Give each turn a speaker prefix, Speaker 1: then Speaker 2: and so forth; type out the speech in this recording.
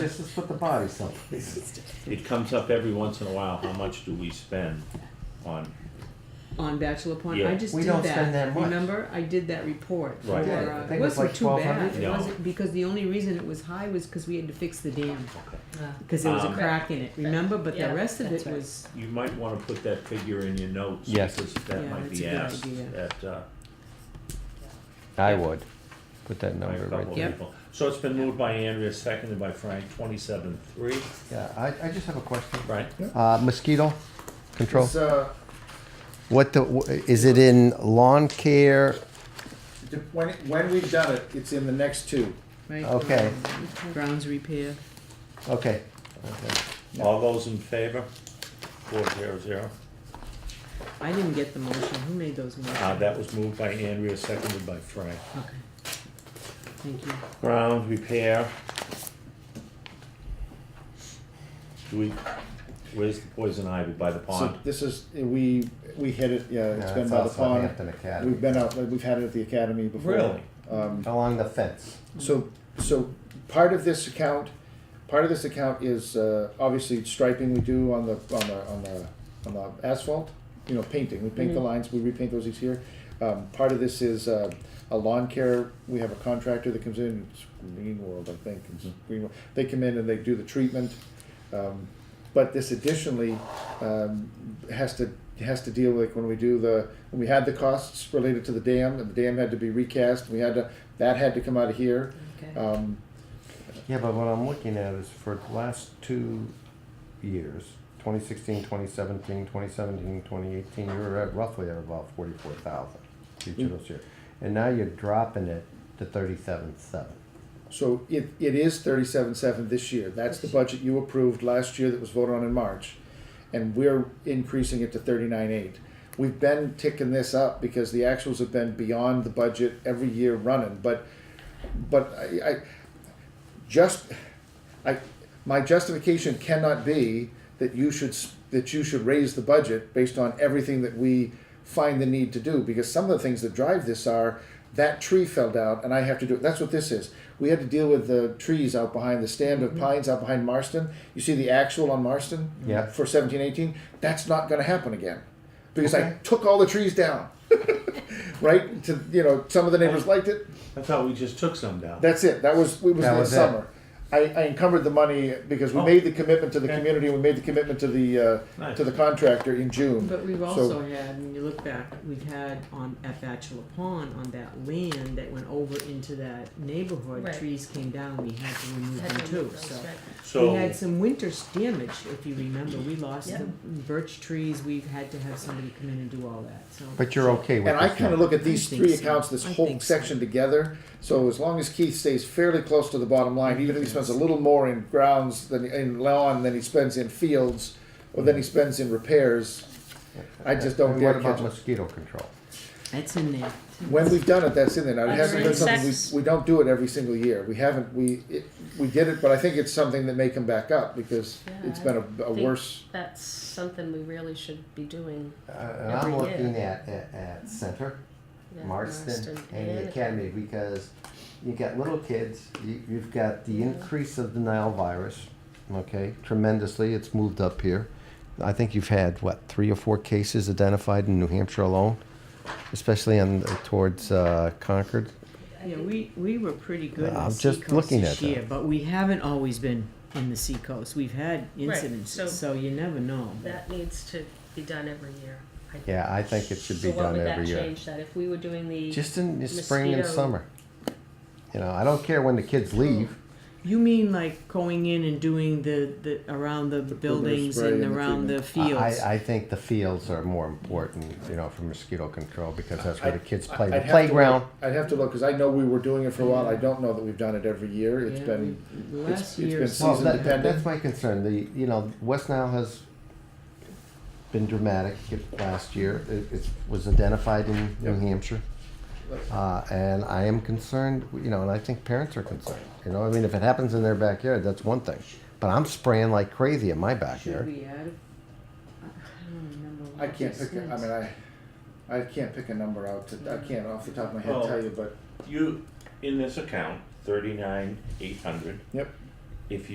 Speaker 1: let's just put the body someplace.
Speaker 2: It comes up every once in a while, how much do we spend on,
Speaker 3: on Bachelor Pond.
Speaker 2: Yeah.
Speaker 3: I just
Speaker 1: We
Speaker 3: did
Speaker 1: don't
Speaker 3: that.
Speaker 1: spend that much.
Speaker 3: Remember, I did that report.
Speaker 2: Right.
Speaker 3: for,
Speaker 2: Yeah, I
Speaker 3: uh,
Speaker 1: think it was
Speaker 3: wasn't
Speaker 1: like
Speaker 3: too bad.
Speaker 1: 1200.
Speaker 3: It
Speaker 2: No.
Speaker 3: wasn't because the only reason it was high was because we had to fix the dam
Speaker 4: Ah,
Speaker 3: because there was
Speaker 2: Um,
Speaker 3: a crack in it. Remember, but
Speaker 4: Yeah,
Speaker 3: the rest of
Speaker 4: that's
Speaker 3: it
Speaker 4: right.
Speaker 3: was
Speaker 2: you might wanna put that figure in your notes.
Speaker 5: Yes.
Speaker 2: Because that
Speaker 3: Yeah,
Speaker 2: might
Speaker 3: that's
Speaker 2: be
Speaker 3: a good
Speaker 2: asked
Speaker 3: idea.
Speaker 2: at, uh,
Speaker 5: I would put that
Speaker 2: by a
Speaker 5: number right
Speaker 2: couple
Speaker 5: there.
Speaker 2: of
Speaker 3: Yep.
Speaker 2: people. So it's been moved by Andrea, seconded by Frank, twenty-seven, three,
Speaker 1: Yeah, I, I just have a question.
Speaker 2: right?
Speaker 5: Uh, mosquito control.
Speaker 6: It's, uh,
Speaker 5: What the, wh- is it in lawn care?
Speaker 6: de- when, when we've done it, it's in the next two.
Speaker 3: right.
Speaker 5: Okay,
Speaker 3: Grounds repair.
Speaker 5: okay.
Speaker 2: All those in favor? Four zero zero.
Speaker 3: I didn't get the motion. Who made those motions?
Speaker 2: Uh, that was moved by Andrea, seconded by Frank.
Speaker 3: Okay. Thank you.
Speaker 2: Ground repair. Do we, where's the poison ivy by the
Speaker 6: So
Speaker 2: pond?
Speaker 6: this is, we, we hit it, yeah, it's
Speaker 5: Yeah,
Speaker 6: been
Speaker 5: it's
Speaker 6: by the
Speaker 5: outside
Speaker 6: pond.
Speaker 5: Hampton Academy.
Speaker 6: We've been out, we've had it at the academy before.
Speaker 2: Really?
Speaker 6: Um,
Speaker 5: Along the fence.
Speaker 6: so, so part of this account, part of this account is, uh, obviously striping we do on the, on the, on the, on the asphalt. You know, painting, we paint the lines, we repaint those each year. Um, part of this is, uh, a lawn care, we have a contractor that comes in, it's Green World, I think, it's Green World. They come in and they do the treatment. Um, But this additionally um, has to, has to deal with when we do the, when we had the costs related to the dam, and the dam had to be recast, we had to, that had to come out of here.
Speaker 4: Okay.
Speaker 6: Um,
Speaker 5: Yeah, but what I'm looking at is for the last two years, 2016, 2017, 2017, 2018, you were at roughly at about 44,000 each of those years. And now you're dropping it to 37.7.
Speaker 6: So it, it is thirty-seven seven this year, that's the budget you approved last year that was voted on in March. And we're increasing it to thirty-nine eight. We've been ticking this up because the actuals have been beyond the budget every year running, but, but I, I, just, I, my justification cannot be that you should, s- that you should raise the budget based on everything that we find the need to do, because some of the things that drive this are, that tree fell down and I have to do, it. that's what this is. We had to deal with the trees out behind the stand of pines out behind Marston, you see the actual on Marston?
Speaker 5: Yeah.
Speaker 6: For seventeen eighteen, that's not gonna happen again, because I
Speaker 5: Okay.
Speaker 6: took all the trees down. Right, to, you know, some of the neighbors liked it,
Speaker 2: I thought we just took some down.
Speaker 6: that's it. That was it was
Speaker 5: That
Speaker 6: that
Speaker 5: was it.
Speaker 6: summer. I, I encumbered the money because we
Speaker 2: Oh.
Speaker 6: made the commitment to the
Speaker 2: Okay.
Speaker 6: community. We made the commitment to the uh,
Speaker 2: Nice.
Speaker 6: to the contractor in June.
Speaker 3: But we've
Speaker 6: So-
Speaker 3: also had, when you look back, we've had on at Bachelor Pond on that land that went over into that neighborhood,
Speaker 4: Right.
Speaker 3: trees came down. We had to remove
Speaker 4: Had
Speaker 3: them
Speaker 4: to
Speaker 3: too.
Speaker 4: move those,
Speaker 3: So
Speaker 4: right.
Speaker 2: So.
Speaker 3: we had some winter s- damage, if you remember. We lost
Speaker 4: Yeah.
Speaker 3: the birch trees. We've had to have somebody come in and do all that. So
Speaker 5: But you're okay with
Speaker 6: and I
Speaker 5: this
Speaker 6: kind of
Speaker 5: number.
Speaker 6: look at these
Speaker 3: I think
Speaker 6: three
Speaker 3: so.
Speaker 6: accounts, this
Speaker 3: I
Speaker 6: whole
Speaker 3: think so.
Speaker 6: section together. So as long as Keith stays fairly close to the bottom line, even if he spends a little more in grounds than in lawn than he spends in fields, or than he spends in repairs, I just don't
Speaker 5: And
Speaker 6: dare
Speaker 5: What about
Speaker 6: catch it.
Speaker 5: mosquito control?
Speaker 3: that's in there.
Speaker 6: When we've done it, that's in there. Now, it
Speaker 4: Other
Speaker 6: hasn't been something,
Speaker 4: insects.
Speaker 6: we, we don't do it every single year. We haven't, we, it, we did it, but I think it's something that may come back up because
Speaker 4: Yeah,
Speaker 6: it's been a, a
Speaker 4: think-
Speaker 6: worse.
Speaker 4: That's something we really should be doing.
Speaker 5: Uh, and I'm
Speaker 4: Every
Speaker 5: looking
Speaker 4: year.
Speaker 5: at, at, at center,
Speaker 4: yeah,
Speaker 5: Marston, and the
Speaker 4: and-
Speaker 5: academy because you got little kids, you, you've got the
Speaker 4: Yeah.
Speaker 5: increase of the Nile virus, okay, tremendously. It's moved up here. I think you've had, what, three or four cases identified in New Hampshire alone, especially on towards uh, Concord.
Speaker 3: Yeah, we, we were pretty good in
Speaker 5: I'm
Speaker 3: the
Speaker 5: just
Speaker 3: seacoast
Speaker 5: looking
Speaker 3: this
Speaker 5: at that.
Speaker 3: year, but we haven't always been in the seacoast. We've had incidents,
Speaker 4: so-
Speaker 3: so you never know. but-
Speaker 4: That needs to be done every year. I think.
Speaker 5: Yeah, I think it should be
Speaker 4: So what
Speaker 5: done
Speaker 4: would that
Speaker 5: every year.
Speaker 4: change that if we were doing the?
Speaker 5: Just in the spring and
Speaker 4: Mosquito.
Speaker 5: summer. You know, I don't care when the kids leave.
Speaker 3: You mean like going in and doing the, the around the, buildings
Speaker 6: spray
Speaker 3: and
Speaker 6: and the
Speaker 3: around the
Speaker 5: I-
Speaker 3: fields?
Speaker 5: I, I think the fields are more important, you know, for mosquito control because that's where the kids play.
Speaker 6: I'd
Speaker 5: The
Speaker 6: have to look-
Speaker 5: playground,
Speaker 6: I'd have to look, cause I know we were doing it for a while. I don't know that we've done it every year. It's
Speaker 3: Yeah,
Speaker 6: been,
Speaker 3: we-
Speaker 6: it's-
Speaker 3: last
Speaker 6: it's been
Speaker 3: year's-
Speaker 6: season
Speaker 5: Well, that-
Speaker 6: dependent.
Speaker 5: That's my concern, the, you know, West Nile has been dramatic last year, it, it was identified in New
Speaker 6: Yep.
Speaker 5: Hampshire. Uh, and I am concerned, you know, and I think parents are concerned, you know, I mean, if it happens in their backyard, that's one thing. But I'm spraying like crazy in my
Speaker 3: Should
Speaker 5: backyard.
Speaker 3: we add? it? I don't remember. what
Speaker 6: I can't
Speaker 3: it
Speaker 6: pick, a- I
Speaker 3: says.
Speaker 6: mean, I, I can't pick a number out to, I can't off the top of my head
Speaker 2: Well-
Speaker 6: tell you, but,
Speaker 2: You, in this account, thirty-nine, eight hundred,
Speaker 6: yep.
Speaker 2: if you